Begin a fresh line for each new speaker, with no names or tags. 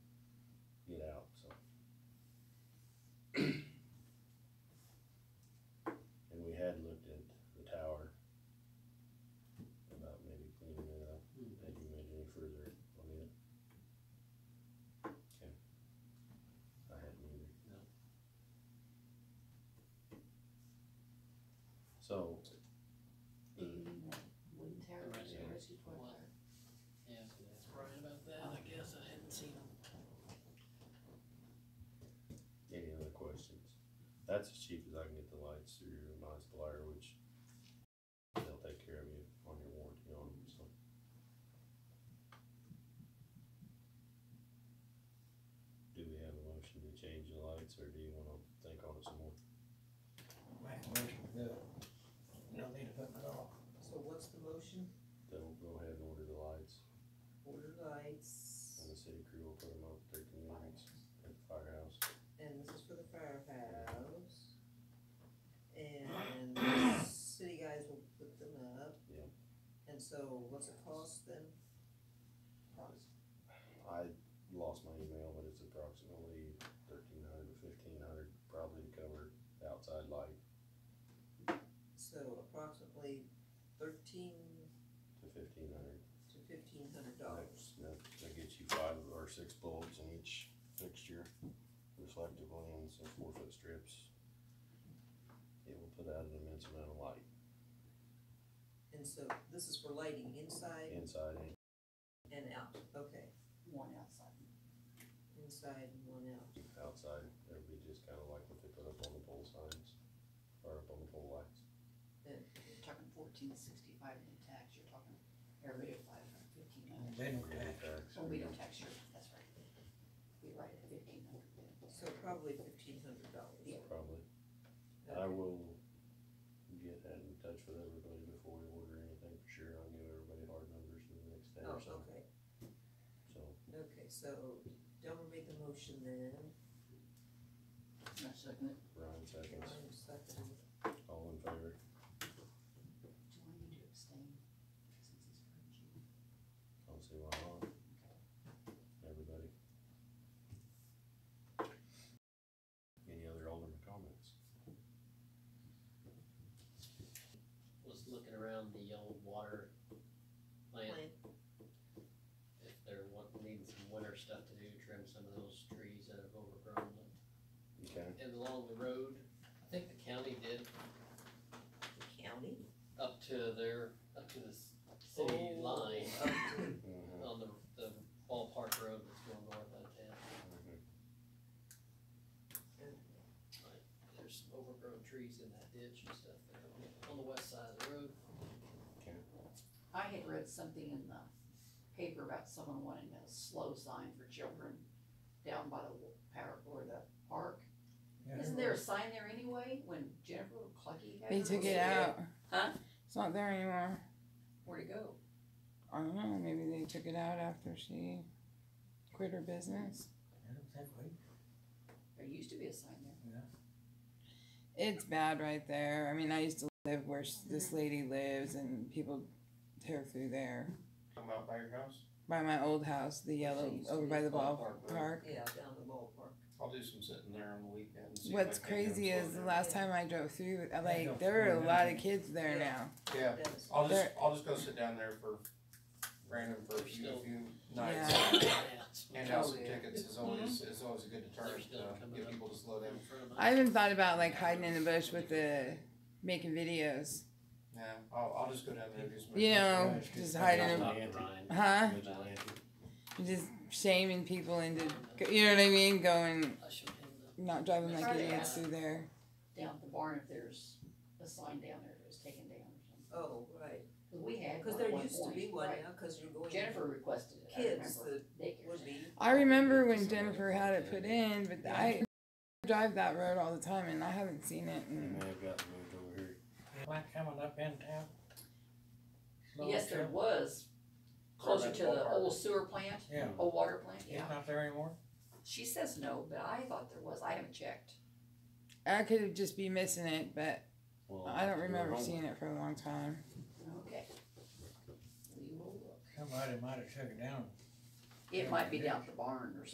So, the,
Wouldn't
Right, yeah.
Yeah, that's right about that, I guess, I hadn't seen them.
any other questions? That's as cheap as I can get the lights through my supplier, which they'll take care of you on your warranty on them, so. Do we have a motion to change the lights, or do you wanna think on it some more?
Make a motion to do it. You don't need to put it off.
So what's the motion?
They'll go ahead and order the lights,
Order lights,
and the city crew will put them up at their convenience at the firehouse.
and this is for the firehouse. And the city guys will put them up.
Yeah.
And so what's it cost then?
I lost my email, but it's approximately thirteen hundred to fifteen hundred, probably to cover the outside light
So approximately thirteen
to fifteen hundred.
to fifteen hundred dollars.
That's, that, that gets you five or six bulbs in each fixture reflective lens and four foot strips. It will put out an immense amount of light
And so this is for lighting inside
inside and
and out, okay,
one outside.
inside and one out.
outside. It'll be just kinda like what they put up on the pole signs or up on the pole lights.
You're talking fourteen sixty-five in tax, you're talking area five hundred fifteen hundred.
And They don't
We'll
tax.
get that.
Well, we don't tax your, that's right. We write it fifteen hundred.
So probably fifteen hundred dollars.
Yeah.
Probably. I will get in touch with everybody before we order anything for sure. I'll give everybody hard numbers in the next day
Oh,
or so.
okay,
So,
okay, so Delmer made the motion then,
No, second.
Ryan seconds,
Ryan seconded.
all in favor?
Do I need to abstain since it's for you?
I'll see why not. Everybody. Any other alderman comments?
Was looking around the old water plant,
Plan-
if they're wanting, needing some winter stuff to do, trim some of those trees that have overgrown them.
Okay.
And along the road, I think the county did
the county.
up to their, up to the s- city
Oh,
line,
up to-
Mhm,
on the, the ballpark road that's going north out of town.
mhm.
There's some overgrown trees in that ditch and stuff there on the west side of the road.
I had read something in the paper about someone wanting a slow sign for children down by the wa- power, or the park.
Yeah,
Isn't there a sign there anyway, when Jennifer Clucky had
They
her
took
little
it
kid?
out.
Huh?
It's not there anymore.
Where'd it go?
I don't know. Maybe they took it out after she quit her business.
I don't think we-
There used to be a sign there.
It's bad right there. I mean, I used to live where s- this lady lives, and people tear through there.
About by your house,
By my old house, the yellow
used to
over
be
by the ball
ballpark, right?
park.
Yeah, down the ballpark.
I'll do some sitting there on the weekend. see if I
What's
can't get 'em
crazy is the
sorted.
last time I drove through, I,
don't
like there were a
know.
lot of kids there
Yeah.
now.
Yeah,
That is-
I'll just,
There-
I'll just go sit down there for random for a few, a few nights. Hand out some
Oh, yeah.
tickets is always, is always a good deterrent
They're Mm-hmm. still
to
coming
get
up.
people to slow down.
I even thought about like hiding in the bush with the making videos.
Yeah, I'll, I'll just go down there and do some.
You know,
Right.
just hiding. in- Huh?
Vigilante.
Just shaming people into, you know what I mean? Going
I showed him the
not driving like
Sorry.
idiots through there.
down at the barn if there's a sign down there that was taken down or something.
Oh, right,
'Cause we had
cause
one
there
at one
used to be
point,
one
right.
now, cause you're going.
Jennifer requested it, I
Kids
remember. Daycare
Would
center.
be,
I remember when Jennifer had it put in, but I drive that road all the time and I haven't seen it.
They
And
may have gotten moved over here.
Like coming up in town. Slow
Yes, there
trip.
was, closer
Right,
to the
ballpark.
old sewer plant,
Yeah,
old water plant,
it's
yeah.
not there anymore?
She says no, but I thought there was, I haven't checked.
I could just be missing it, but
Well,
I don't
they're
remember
home.
seeing it for a long time.
Okay. We will look.
Somebody might have took it down
It might be down at the barn or something.